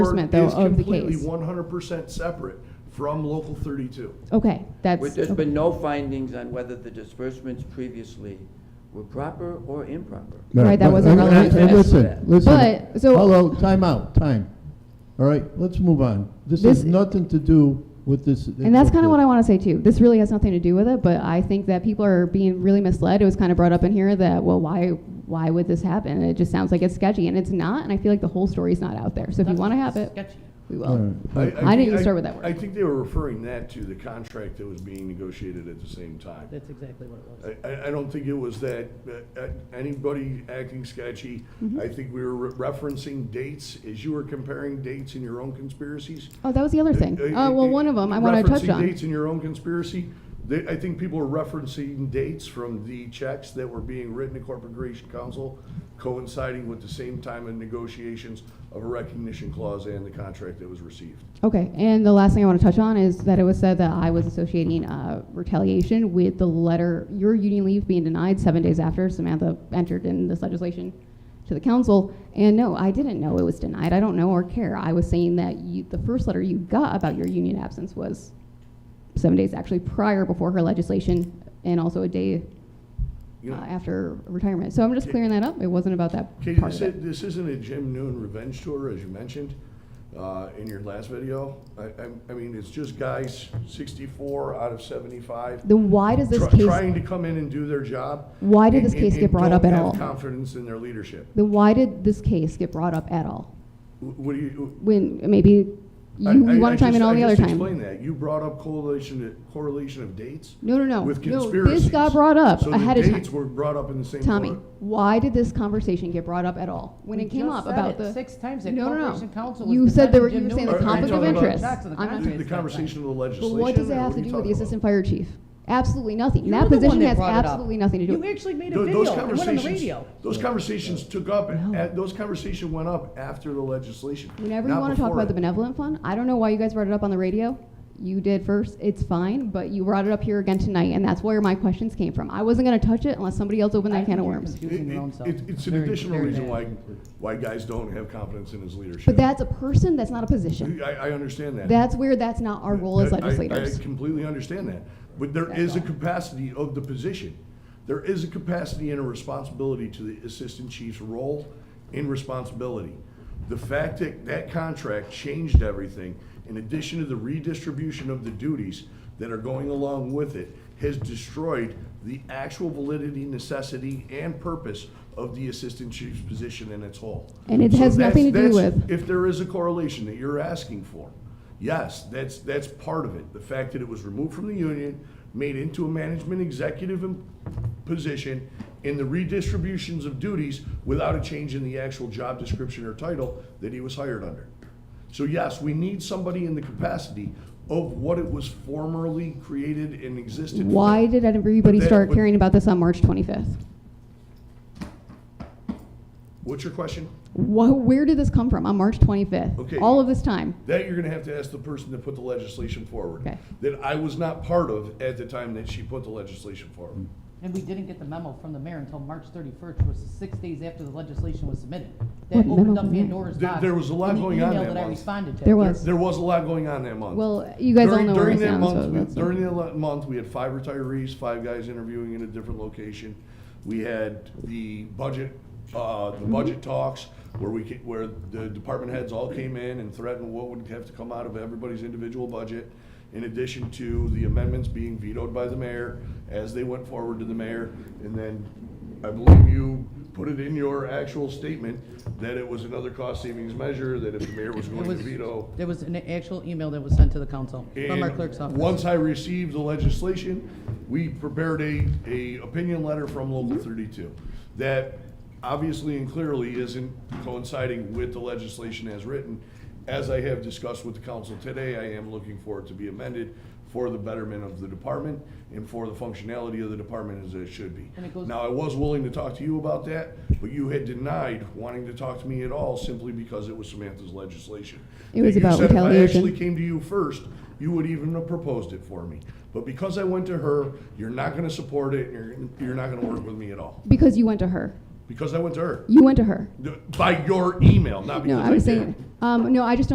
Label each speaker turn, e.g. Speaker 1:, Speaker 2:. Speaker 1: enforcement, though,
Speaker 2: is
Speaker 1: of the
Speaker 2: completely
Speaker 1: case.
Speaker 2: 100% separate from Local 32.
Speaker 1: Okay,
Speaker 3: Well,
Speaker 1: that's,
Speaker 3: There's
Speaker 1: okay.
Speaker 3: been no findings on whether the disbursements previously were proper or improper.
Speaker 1: Right, that
Speaker 4: but-
Speaker 1: wasn't
Speaker 4: and-
Speaker 1: relevant
Speaker 4: and-
Speaker 1: to
Speaker 4: and
Speaker 1: this.
Speaker 4: Listen, listen.
Speaker 1: But, so-
Speaker 4: Hello, time out, time. All right, let's move on. This
Speaker 1: This-
Speaker 4: has nothing to do with this.
Speaker 1: and that's kind of what I want to say too. This really has nothing to do with it, but I think that people are being really misled. It was kind of brought up in here that, well, why, why would this happen? And it just sounds like it's sketchy, and it's not, and I feel like the whole story's not out there. So if you want to have it,
Speaker 5: Sketchy.
Speaker 1: we
Speaker 4: All
Speaker 1: will.
Speaker 4: right,
Speaker 2: I-
Speaker 4: but-
Speaker 1: Hmm. I didn't
Speaker 2: think-
Speaker 1: start with that word.
Speaker 2: I think they were referring that to the contract that was being negotiated at the same time.
Speaker 5: That's exactly what it was.
Speaker 2: I- I, I don't think it was that, uh, uh, anybody acting sketchy.
Speaker 1: Mm-hmm.
Speaker 2: I think we were re- referencing dates, as you were comparing dates in your own conspiracies.
Speaker 1: Oh, that was the other thing.
Speaker 2: Uh, uh,
Speaker 1: Uh, well, one of them I want to touch
Speaker 2: Referencing dates
Speaker 1: on.
Speaker 2: in your own conspiracy, they, I think people are referencing dates from the checks that were being written to Corporate Creation Council coinciding with the same time in negotiations of a recognition clause and the contract that was received.
Speaker 1: Okay, and the last thing I want to touch on is that it was said that I was associating uh, retaliation with the letter, your union leave being denied seven days after Samantha entered in this legislation to the council. And no, I didn't know it was denied. I don't know or care. I was saying that you, the first letter you got about your union absence was seven days actually prior before her legislation and also a day
Speaker 2: You
Speaker 1: uh,
Speaker 2: know,
Speaker 1: after retirement. So I'm just
Speaker 2: Okay.
Speaker 1: clearing that up. It wasn't about that
Speaker 2: Katie,
Speaker 1: part
Speaker 2: this,
Speaker 1: of it.
Speaker 2: i- this isn't a Jim Noon revenge tour, as you mentioned, uh, in your last video. I, I, I mean, it's just guys sixty-four out of seventy-five.
Speaker 1: Then why does this
Speaker 2: try-
Speaker 1: case?
Speaker 2: Trying to come in and do their job.
Speaker 1: Why did this
Speaker 2: and-
Speaker 1: case
Speaker 2: and-
Speaker 1: get
Speaker 2: and
Speaker 1: brought
Speaker 2: don't
Speaker 1: up at
Speaker 2: have
Speaker 1: all?
Speaker 2: Confidence in their leadership.
Speaker 1: Then why did this case get brought up at all?
Speaker 2: Wh- What do you?
Speaker 1: When maybe you,
Speaker 2: I- I-
Speaker 1: you want
Speaker 2: I
Speaker 1: to chime in
Speaker 2: just-
Speaker 1: all
Speaker 2: I
Speaker 1: the other
Speaker 2: just
Speaker 1: time.
Speaker 2: Explain that. You brought up correlation, correlation of dates
Speaker 1: No, no, no.
Speaker 2: with
Speaker 1: no,
Speaker 2: conspiracies.
Speaker 1: this got brought up
Speaker 2: So the
Speaker 1: Uh, ahead of time.
Speaker 2: dates were brought up in the same
Speaker 1: Tommy,
Speaker 2: order.
Speaker 1: why did this conversation get brought up at all when
Speaker 5: We
Speaker 1: it came
Speaker 5: just
Speaker 1: up
Speaker 5: said
Speaker 1: about
Speaker 5: it
Speaker 1: the
Speaker 5: Six times that
Speaker 1: No, no, no.
Speaker 5: Corporation Council was.
Speaker 1: You said there were-
Speaker 5: defending
Speaker 1: you were
Speaker 5: Jim
Speaker 1: saying the
Speaker 5: Newman.
Speaker 2: conflict of
Speaker 5: Are you talking about
Speaker 2: interest.
Speaker 5: facts of the
Speaker 1: I'm not-
Speaker 5: contract
Speaker 2: The the
Speaker 5: at that time?
Speaker 2: conversation of the
Speaker 1: But
Speaker 2: legislation.
Speaker 1: what does it
Speaker 2: or
Speaker 1: have
Speaker 2: what
Speaker 1: to
Speaker 2: are you
Speaker 1: do with the
Speaker 2: talking
Speaker 1: assistant
Speaker 2: about?
Speaker 1: fire chief? Absolutely nothing.
Speaker 5: You're
Speaker 1: that
Speaker 5: the one
Speaker 1: position
Speaker 5: that
Speaker 1: has
Speaker 5: brought it up.
Speaker 1: absolutely nothing to do.
Speaker 5: You actually made a
Speaker 2: Tho- Those
Speaker 5: video, it went on the
Speaker 2: conversations,
Speaker 5: radio.
Speaker 2: those conversations took up, at- those conversation went up after the legislation.
Speaker 1: Whenever you
Speaker 2: not
Speaker 1: want to talk
Speaker 2: before
Speaker 1: about the
Speaker 2: it.
Speaker 1: benevolent fund, I don't know why you guys brought it up on the radio. You did first. It's fine, but you brought it up here again tonight, and that's where my questions came from. I wasn't going to touch it unless somebody else opened
Speaker 5: I
Speaker 1: that can of
Speaker 5: think you're
Speaker 1: worms.
Speaker 5: confusing your own
Speaker 2: It-
Speaker 5: self.
Speaker 2: it- It's an
Speaker 5: Very-
Speaker 2: additional
Speaker 5: very
Speaker 2: reason
Speaker 5: bad.
Speaker 2: why, why guys don't have confidence in his leadership.
Speaker 1: But that's a person. That's not a position.
Speaker 2: I, I understand that.
Speaker 1: That's where that's not our role as
Speaker 2: I- I-
Speaker 1: legislators.
Speaker 2: I completely understand that, but there is a capacity of the position. There is a capacity and a responsibility to the assistant chief's role and responsibility. The fact that that contract changed everything, in addition to the redistribution of the duties that are going along with it, has destroyed the actual validity, necessity, and purpose of the assistant chief's position in its whole.
Speaker 1: And it
Speaker 2: So
Speaker 1: has
Speaker 2: that's-
Speaker 1: nothing to do
Speaker 2: that's-
Speaker 1: with-
Speaker 2: if there is a correlation that you're asking for, yes, that's, that's part of it. The fact that it was removed from the union, made into a management executive em- position, in the redistributions of duties without a change in the actual job description or title that he was hired under. So yes, we need somebody in the capacity of what it was formerly created and existed for.
Speaker 1: Why did everybody
Speaker 2: But that-
Speaker 1: start
Speaker 2: but-
Speaker 1: caring about this on March 25th?
Speaker 2: What's your question?
Speaker 1: Wh- where did this come from on March 25th?
Speaker 2: Okay.
Speaker 1: All of this time.
Speaker 2: That you're gonna have to ask the person that put the legislation forward.
Speaker 1: Okay.
Speaker 2: That I was not part of at the time that she put the legislation forward.
Speaker 5: And we didn't get the memo from the mayor until March thirty-first, which was six days after the legislation was submitted. That
Speaker 1: What memo
Speaker 5: opened
Speaker 1: from
Speaker 5: up
Speaker 1: the mayor?
Speaker 5: Pandora's
Speaker 2: There-
Speaker 5: box.
Speaker 2: there was a lot
Speaker 5: in the
Speaker 2: going on
Speaker 5: email
Speaker 2: that
Speaker 5: I
Speaker 2: month.
Speaker 5: responded to.
Speaker 1: There was.
Speaker 2: There was a lot going on that month.
Speaker 1: Well, you guys all
Speaker 2: During-
Speaker 1: know where
Speaker 2: during
Speaker 1: it's
Speaker 2: that
Speaker 1: down,
Speaker 2: month,
Speaker 1: so
Speaker 2: we-
Speaker 1: that's not-
Speaker 2: During that lo- month, we had five retirees, five guys interviewing in a different location. We had the budget, uh,
Speaker 1: Mm-hmm.
Speaker 2: the budget talks where we, ca- where the department heads all came in and threatened what would have to come out of everybody's individual budget. In addition to the amendments being vetoed by the mayor as they went forward to the mayor. And then I believe you put it in your actual statement that it was another cost savings measure, that if the mayor was
Speaker 5: It
Speaker 2: going to
Speaker 5: was-
Speaker 2: veto.
Speaker 5: There was an actual email that was sent to the council from our
Speaker 2: And
Speaker 5: clerk's office.
Speaker 2: Once I received the legislation, we prepared a, a opinion letter from Local
Speaker 5: Mm-hmm.
Speaker 2: thirty-two that obviously and clearly isn't coinciding with the legislation as written. As I have discussed with the council today, I am looking for it to be amended for the betterment of the department and for the functionality of the department as it should be.
Speaker 5: And it goes-
Speaker 2: Now, I was willing to talk to you about that, but you had denied wanting to talk to me at all simply because it was Samantha's legislation.
Speaker 1: It was
Speaker 2: You
Speaker 1: about
Speaker 2: said if I actually
Speaker 1: retaliation.
Speaker 2: came to you first, you would even have proposed it for me. But because I went to her, you're not gonna support it, and you're, you're not gonna work with me at all.
Speaker 1: Because you went to her.
Speaker 2: Because I went to her,
Speaker 1: You went to her.
Speaker 2: by your email, not
Speaker 1: No,
Speaker 2: because I
Speaker 1: I was
Speaker 2: did.
Speaker 1: saying, um, no, I just don't